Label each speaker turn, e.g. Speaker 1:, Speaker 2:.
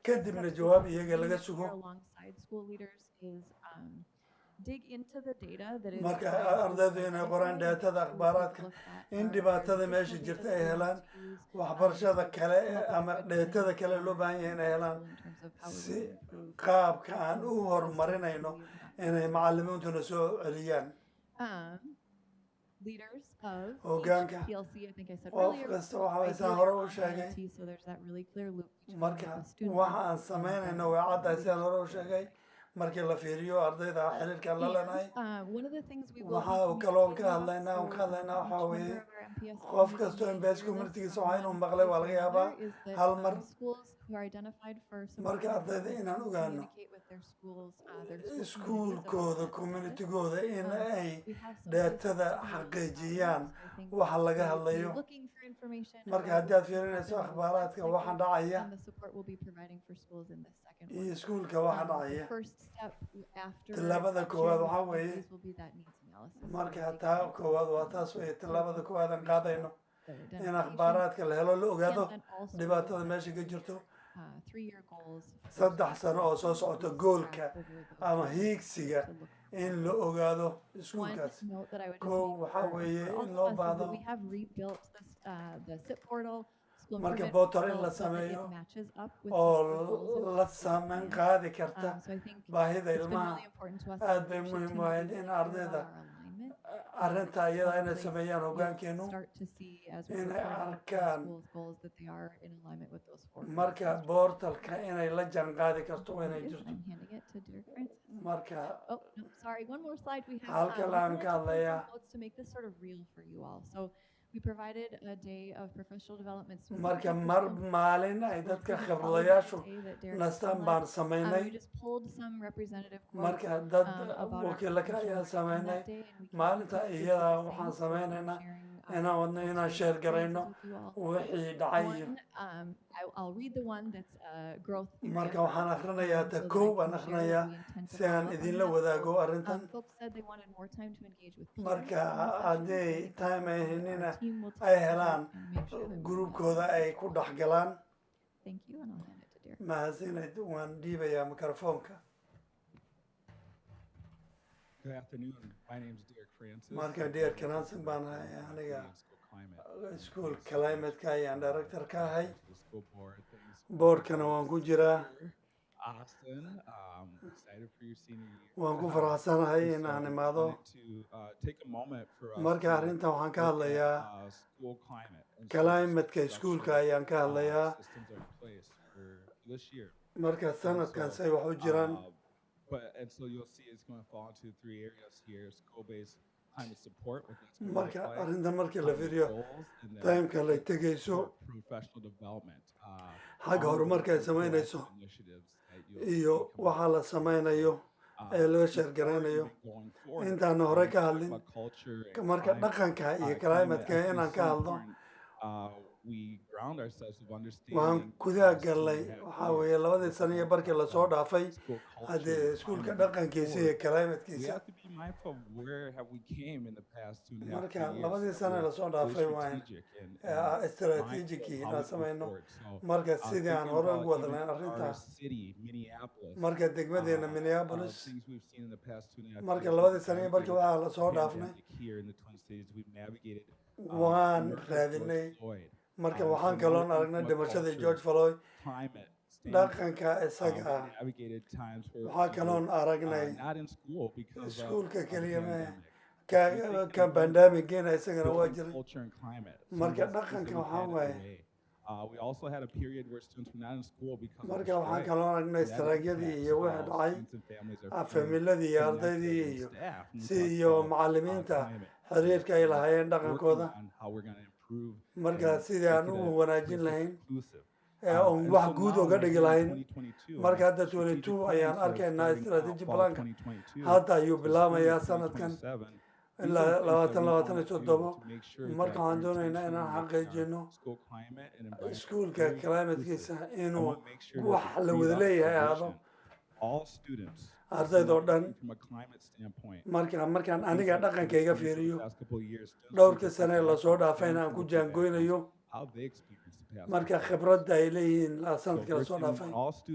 Speaker 1: kadibna jawaab iyaga laga sugo
Speaker 2: alongside school leaders is um, dig into the data that is
Speaker 1: Marka,
Speaker 2: available
Speaker 1: ardaydu
Speaker 2: by
Speaker 1: inay
Speaker 2: high
Speaker 1: qoraan
Speaker 2: school
Speaker 1: daatada,
Speaker 2: leaders,
Speaker 1: akhbaaraadka,
Speaker 2: look at um,
Speaker 1: in
Speaker 2: our
Speaker 1: dhibaatada
Speaker 2: social
Speaker 1: meesha
Speaker 2: media
Speaker 1: jirta
Speaker 2: that we
Speaker 1: ay helaan,
Speaker 2: use, um,
Speaker 1: waxbarashada kale
Speaker 2: come up with
Speaker 1: ama
Speaker 2: different
Speaker 1: dheetada kale loo baahan yahay inay helaan
Speaker 2: um, in terms of how we
Speaker 1: si
Speaker 2: would improve
Speaker 1: qaabka aan u
Speaker 2: the
Speaker 1: horumarinayno
Speaker 2: quality of that.
Speaker 1: inay macallimiintuna soo celiyaan
Speaker 2: Um, leaders of
Speaker 1: Hoggaanka.
Speaker 2: each PLC, I think I said
Speaker 1: qof
Speaker 2: earlier,
Speaker 1: kasta waxa
Speaker 2: ideally
Speaker 1: aysan hore u
Speaker 2: on
Speaker 1: sheegay
Speaker 2: IT, so there's that really clear loop between
Speaker 1: marka
Speaker 2: the student
Speaker 1: waxa
Speaker 2: and
Speaker 1: aan
Speaker 2: the parent.
Speaker 1: samaynayno way caddahay sidaan hore u sheegay markii la fiiriyo ardayda xiriirkan la lenahay
Speaker 2: Uh, one of the things we will
Speaker 1: Waxaa
Speaker 2: be
Speaker 1: kaloon ka
Speaker 2: communicating
Speaker 1: hadlaynaa,
Speaker 2: about
Speaker 1: oon ka hadlaynaa
Speaker 2: for,
Speaker 1: waxaa
Speaker 2: um, each
Speaker 1: weeye,
Speaker 2: member of our MPS
Speaker 1: qof
Speaker 2: community
Speaker 1: kasto
Speaker 2: to
Speaker 1: MPS
Speaker 2: hear
Speaker 1: communitygiisa
Speaker 2: this,
Speaker 1: waxaa
Speaker 2: um,
Speaker 1: inuu maqlay waa
Speaker 2: is another
Speaker 1: laga yaabaa
Speaker 2: is that,
Speaker 1: hal
Speaker 2: um,
Speaker 1: mar.
Speaker 2: schools who are identified for some
Speaker 1: Marka
Speaker 2: kind of
Speaker 1: ardayda
Speaker 2: problem
Speaker 1: inaan
Speaker 2: to
Speaker 1: ogaano
Speaker 2: communicate with their schools, uh, their
Speaker 1: Eh,
Speaker 2: school communities about
Speaker 1: iskuulkooda
Speaker 2: that process.
Speaker 1: communitigooda in
Speaker 2: Um,
Speaker 1: ay
Speaker 2: We have some
Speaker 1: dheetada
Speaker 2: ways to
Speaker 1: xaqiijiyaan
Speaker 2: communicate, um, so I think
Speaker 1: waxa laga
Speaker 2: they will be
Speaker 1: hadlayo.
Speaker 2: looking for information
Speaker 1: marka
Speaker 2: about
Speaker 1: haddaad
Speaker 2: what's
Speaker 1: fiirinayso
Speaker 2: happening in the
Speaker 1: akhbaaraadka
Speaker 2: last
Speaker 1: waxa
Speaker 2: cycle
Speaker 1: dhacaya
Speaker 2: and the support we'll be providing for schools in this second one.
Speaker 1: iyo iskuulka waxa
Speaker 2: Um, the
Speaker 1: dhacaya
Speaker 2: first step after
Speaker 1: Tallaabada
Speaker 2: that
Speaker 1: koowaad
Speaker 2: sharing
Speaker 1: waxaa weeye,
Speaker 2: activities will be that needs analysis.
Speaker 1: marka
Speaker 2: Taking
Speaker 1: taa
Speaker 2: notes
Speaker 1: koowaad waa
Speaker 2: of
Speaker 1: taas weye
Speaker 2: the
Speaker 1: tallaabada koowaad aan
Speaker 2: information
Speaker 1: qaadayno
Speaker 2: that are
Speaker 1: in
Speaker 2: identified
Speaker 1: akhbaaraadka la helo la
Speaker 2: and
Speaker 1: ogaado
Speaker 2: then also
Speaker 1: dhibaatada
Speaker 2: set
Speaker 1: meesha ka
Speaker 2: three-year,
Speaker 1: jirto
Speaker 2: uh, three-year goals for
Speaker 1: saddex
Speaker 2: schools
Speaker 1: sano oo soo
Speaker 2: to
Speaker 1: socota
Speaker 2: track
Speaker 1: goolka
Speaker 2: over those
Speaker 1: ama
Speaker 2: goals
Speaker 1: hiigsiga
Speaker 2: to look
Speaker 1: in la ogaado
Speaker 2: One
Speaker 1: iskuulkaas
Speaker 2: note that I would just
Speaker 1: Kow
Speaker 2: make
Speaker 1: waxaa
Speaker 2: for-
Speaker 1: weeye
Speaker 2: for all
Speaker 1: in
Speaker 2: of
Speaker 1: loo
Speaker 2: us is that
Speaker 1: baahdo
Speaker 2: we have rebuilt this, uh, the SIP portal, school
Speaker 1: Marka
Speaker 2: improvement
Speaker 1: portal in
Speaker 2: portal,
Speaker 1: la
Speaker 2: so that it
Speaker 1: sameeyo
Speaker 2: matches up with
Speaker 1: oo
Speaker 2: the goals and
Speaker 1: la
Speaker 2: the plan.
Speaker 1: saameyn qaadi karta
Speaker 2: Um, So I think
Speaker 1: baahida
Speaker 2: it's been
Speaker 1: ilmaha
Speaker 2: really important to us. as a
Speaker 1: aad bay
Speaker 2: leadership
Speaker 1: muhiim
Speaker 2: team
Speaker 1: u
Speaker 2: to
Speaker 1: ahayd
Speaker 2: be
Speaker 1: in
Speaker 2: clear about
Speaker 1: ardayda
Speaker 2: our alignment.
Speaker 1: arrinta iyada inay
Speaker 2: Place
Speaker 1: sameeyaan
Speaker 2: we'll
Speaker 1: hoggaankeenu
Speaker 2: Start to see as we're
Speaker 1: inay
Speaker 2: reporting on the
Speaker 1: arkaan
Speaker 2: school's goals that they are in alignment with those four. goals.
Speaker 1: marka boortalka inay la janqaadi karto waa inay
Speaker 2: It is.
Speaker 1: jirto
Speaker 2: I'm handing it to Derek Francis.
Speaker 1: marka
Speaker 2: Oh, no, sorry, one more slide. We have.
Speaker 1: Halka
Speaker 2: um,
Speaker 1: laanka
Speaker 2: financial
Speaker 1: hadlaya.
Speaker 2: planning quotes To make this sort of real for you all. So we provided a day of professional development. specifically
Speaker 1: marka
Speaker 2: for
Speaker 1: mar
Speaker 2: students.
Speaker 1: maalin ay dadka
Speaker 2: Followed by
Speaker 1: khibradlayaashu
Speaker 2: the day that Derek
Speaker 1: nastaan
Speaker 2: led.
Speaker 1: baan
Speaker 2: Um,
Speaker 1: samaynay
Speaker 2: We just pulled some representative quotes
Speaker 1: marka dad
Speaker 2: um, about our
Speaker 1: wakiilaka
Speaker 2: professional
Speaker 1: ayaa
Speaker 2: work on
Speaker 1: samaynay
Speaker 2: that day. and we can
Speaker 1: maalinta
Speaker 2: do the
Speaker 1: iyadaa
Speaker 2: same.
Speaker 1: waxaan
Speaker 2: So we'll be
Speaker 1: sameynaynaa
Speaker 2: sharing, um,
Speaker 1: inaan wadno inaan
Speaker 2: some
Speaker 1: sheer garayno
Speaker 2: experiences with you all.
Speaker 1: wixii dhacay iyo
Speaker 2: One, um, I, I'll read the one that's uh, growth.
Speaker 1: marka waxaan akrinayaa ta
Speaker 2: so
Speaker 1: koob
Speaker 2: that I
Speaker 1: aan
Speaker 2: can share
Speaker 1: akrinayaa
Speaker 2: what we intend to
Speaker 1: si aan
Speaker 2: follow on
Speaker 1: idinla
Speaker 2: that.
Speaker 1: wadaago
Speaker 2: Um,
Speaker 1: arrintan
Speaker 2: folks said they wanted more time to engage with peers.
Speaker 1: Marka,
Speaker 2: in the session,
Speaker 1: hadday
Speaker 2: so I think
Speaker 1: time ay
Speaker 2: our
Speaker 1: helina,
Speaker 2: team will take
Speaker 1: ay
Speaker 2: that
Speaker 1: helaan,
Speaker 2: and make sure that we
Speaker 1: gruubkooda
Speaker 2: have-
Speaker 1: ay ku dhex galaan
Speaker 2: Thank you, and I'll hand it to Derek.
Speaker 1: mahadsanid waan dhiibayaa mikrofoonka
Speaker 3: Good afternoon. My name is Derek Francis.
Speaker 1: Marka,
Speaker 3: I'm
Speaker 1: Derek
Speaker 3: the
Speaker 1: Francis
Speaker 3: director
Speaker 1: baan
Speaker 3: of
Speaker 1: ahay,
Speaker 3: School
Speaker 1: aniga,
Speaker 3: Climate.
Speaker 1: iskuul climateka ayaan director ka ahay
Speaker 3: Thanks to the school board. Thanks for
Speaker 1: boorkana
Speaker 3: having
Speaker 1: waan ku
Speaker 3: us
Speaker 1: jiraa
Speaker 3: here. Austin, um, excited for your senior year.
Speaker 1: waan ku
Speaker 3: Um,
Speaker 1: faraxsanahay
Speaker 3: and
Speaker 1: in
Speaker 3: so
Speaker 1: aan
Speaker 3: I
Speaker 1: imaado
Speaker 3: wanted to, uh, take a moment for us
Speaker 1: marka
Speaker 3: to
Speaker 1: arrintan waxaan ka
Speaker 3: look at,
Speaker 1: hadlayaa
Speaker 3: uh, school climate and some of the
Speaker 1: climateca iskuulka
Speaker 3: structural,
Speaker 1: ayaan ka
Speaker 3: uh,
Speaker 1: hadlayaa
Speaker 3: systems that are in place for this year.
Speaker 1: marka sanadkan say wax u jiraan
Speaker 3: Uh, but and so you'll see it's going to fall into three areas here: school-based climate support, what that's gonna look
Speaker 1: marka
Speaker 3: like,
Speaker 1: arrintan marka la
Speaker 3: climate
Speaker 1: fiiriyo
Speaker 3: goals, and then
Speaker 1: taymka lay
Speaker 3: support
Speaker 1: tegayso
Speaker 3: for professional development. Uh,
Speaker 1: xagga
Speaker 3: all of
Speaker 1: horumarka
Speaker 3: those
Speaker 1: ay samaynayso
Speaker 3: proactive initiatives that you'll see
Speaker 1: iyo
Speaker 3: coming
Speaker 1: waxaa
Speaker 3: up.
Speaker 1: la samaynayo
Speaker 3: Uh,
Speaker 1: ee laga
Speaker 3: before
Speaker 1: sheergaraynayo
Speaker 3: even going forward,
Speaker 1: intaan
Speaker 3: uh,
Speaker 1: hore
Speaker 3: we
Speaker 1: ka
Speaker 3: talk
Speaker 1: hadlin,
Speaker 3: about culture and
Speaker 1: marka
Speaker 3: climate.
Speaker 1: dhaqanka
Speaker 3: Uh,
Speaker 1: iyo
Speaker 3: climate, I
Speaker 1: climateka
Speaker 3: think,
Speaker 1: inaan
Speaker 3: is
Speaker 1: ka
Speaker 3: so
Speaker 1: hadlo
Speaker 3: important. Uh, we ground ourselves with
Speaker 1: waxaan
Speaker 3: understanding
Speaker 1: gudaha
Speaker 3: past two and a
Speaker 1: gallay
Speaker 3: half
Speaker 1: waxaa
Speaker 3: years
Speaker 1: weeye labadii
Speaker 3: worth
Speaker 1: sano iyo
Speaker 3: of
Speaker 1: barkii lasoo
Speaker 3: development
Speaker 1: dhaafay
Speaker 3: school culture
Speaker 1: haddee
Speaker 3: and
Speaker 1: iskuulka
Speaker 3: climate moving
Speaker 1: dhaqankiisa iyo
Speaker 3: forward, we
Speaker 1: climatekiisa
Speaker 3: have to be mindful of where have we came in the past two and a half
Speaker 1: Marka,
Speaker 3: three years.
Speaker 1: labadii
Speaker 3: that
Speaker 1: sano
Speaker 3: we're
Speaker 1: lasoo
Speaker 3: very
Speaker 1: dhaafay waan,
Speaker 3: strategic and-
Speaker 1: ee ah,
Speaker 3: and
Speaker 1: strategic
Speaker 3: mindful of
Speaker 1: inaan
Speaker 3: how we go
Speaker 1: samayno.
Speaker 3: forward. So,
Speaker 1: marka
Speaker 3: uh,
Speaker 1: sidii aan
Speaker 3: thinking
Speaker 1: hore
Speaker 3: about
Speaker 1: ugu
Speaker 3: even
Speaker 1: wadnayn
Speaker 3: our
Speaker 1: arrinta
Speaker 3: city, Minneapolis,
Speaker 1: marka
Speaker 3: uh,
Speaker 1: degmadeena
Speaker 3: of
Speaker 1: minneapolis
Speaker 3: things we've seen in the past two and a half
Speaker 1: marka
Speaker 3: years,
Speaker 1: labadii
Speaker 3: we've
Speaker 1: sano iyo barkii
Speaker 3: navigated
Speaker 1: waxaa lasoo dhaafnay
Speaker 3: pandemic here in the Twin Cities, we've navigated, uh,
Speaker 1: waan
Speaker 3: murder of George
Speaker 1: raadinay
Speaker 3: Floyd,
Speaker 1: marka
Speaker 3: uh,
Speaker 1: waxaan
Speaker 3: so
Speaker 1: kaloon
Speaker 3: looking
Speaker 1: aragnay
Speaker 3: from a
Speaker 1: dhimashadii
Speaker 3: culture,
Speaker 1: george floyd
Speaker 3: climate standpoint.
Speaker 1: dhaqanka
Speaker 3: Um,
Speaker 1: isaga ah
Speaker 3: we navigated times where
Speaker 1: waxaa
Speaker 3: we were,
Speaker 1: kaloon
Speaker 3: uh,
Speaker 1: aragnay
Speaker 3: not in school because of,
Speaker 1: Iskuulka
Speaker 3: of the
Speaker 1: kaliya ma
Speaker 3: pandemic.
Speaker 1: ka
Speaker 3: We think
Speaker 1: ka
Speaker 3: about
Speaker 1: bandamigeena isagana waa
Speaker 3: between
Speaker 1: jiray
Speaker 3: culture and climate. Some of
Speaker 1: marka
Speaker 3: those things
Speaker 1: dhaqanka
Speaker 3: that we
Speaker 1: waxaa
Speaker 3: had
Speaker 1: waaye
Speaker 3: away. Uh, we also had a period where students were not in school because of the
Speaker 1: marka waxaan
Speaker 3: strike.
Speaker 1: kaloo aragnay
Speaker 3: That
Speaker 1: istaraajyadii
Speaker 3: impacts
Speaker 1: iyo wixii
Speaker 3: how
Speaker 1: dhacay
Speaker 3: students and families
Speaker 1: ah,
Speaker 3: are feeling,
Speaker 1: familiyadii iyo
Speaker 3: connected,
Speaker 1: ardaydii
Speaker 3: and
Speaker 1: iyo
Speaker 3: staff. And we
Speaker 1: si
Speaker 3: talked
Speaker 1: iyo
Speaker 3: about uh,
Speaker 1: macallimiinta
Speaker 3: climate.
Speaker 1: xiriirka ay lahaayeen
Speaker 3: Working
Speaker 1: dhaqankooda
Speaker 3: on how we're going to improve
Speaker 1: marka
Speaker 3: and
Speaker 1: sidii aan
Speaker 3: make it a
Speaker 1: ugu wanaajin
Speaker 3: place that's
Speaker 1: lahayn
Speaker 3: inclusive.
Speaker 1: ee
Speaker 3: Uh,
Speaker 1: oon
Speaker 3: and
Speaker 1: wax
Speaker 3: so
Speaker 1: guud
Speaker 3: now
Speaker 1: oga
Speaker 3: we're
Speaker 1: dhigi
Speaker 3: in
Speaker 1: lahayn
Speaker 3: 2022, and
Speaker 1: marka
Speaker 3: our
Speaker 1: hadda
Speaker 3: strategic
Speaker 1: 22
Speaker 3: plan
Speaker 1: ayaan
Speaker 3: for
Speaker 1: arkaynaa
Speaker 3: starting fall
Speaker 1: strategy
Speaker 3: fall
Speaker 1: planka
Speaker 3: 2022,
Speaker 1: hadda ayuu
Speaker 3: so starting
Speaker 1: bilaabayaa
Speaker 3: in
Speaker 1: sanadkan
Speaker 3: 2027, these
Speaker 1: ilaa
Speaker 3: are things that we
Speaker 1: 20
Speaker 3: want to
Speaker 1: 23
Speaker 3: do
Speaker 1: toddoba
Speaker 3: to make sure
Speaker 1: marka
Speaker 3: that
Speaker 1: waxaan
Speaker 3: we're
Speaker 1: doonaynaa
Speaker 3: intentionally
Speaker 1: inaan
Speaker 3: making our
Speaker 1: xaqiijino
Speaker 3: school climate and environment
Speaker 1: iskuulka
Speaker 3: very inclusive.
Speaker 1: climatekiisa
Speaker 3: I
Speaker 1: inuu
Speaker 3: want to make sure
Speaker 1: wax
Speaker 3: that the
Speaker 1: la wada
Speaker 3: freed
Speaker 1: leeyahay
Speaker 3: up
Speaker 1: ahaado
Speaker 3: position, all students,
Speaker 1: ardayda oo dhan
Speaker 3: looking from a climate standpoint,
Speaker 1: marka markaan aniga
Speaker 3: things that we've
Speaker 1: dhaqankayga
Speaker 3: seen for the
Speaker 1: fiiriyo
Speaker 3: past couple of years, students need
Speaker 1: dhowrkii
Speaker 3: to take
Speaker 1: sane lasoo
Speaker 3: action to
Speaker 1: dhaafayna aan ku
Speaker 3: improve their background,
Speaker 1: jaangooynayo
Speaker 3: how they experience the past.
Speaker 1: marka khibrada ay leeyihiin la
Speaker 3: So
Speaker 1: sanadka
Speaker 3: we're
Speaker 1: la soo
Speaker 3: doing
Speaker 1: dhaafay
Speaker 3: all students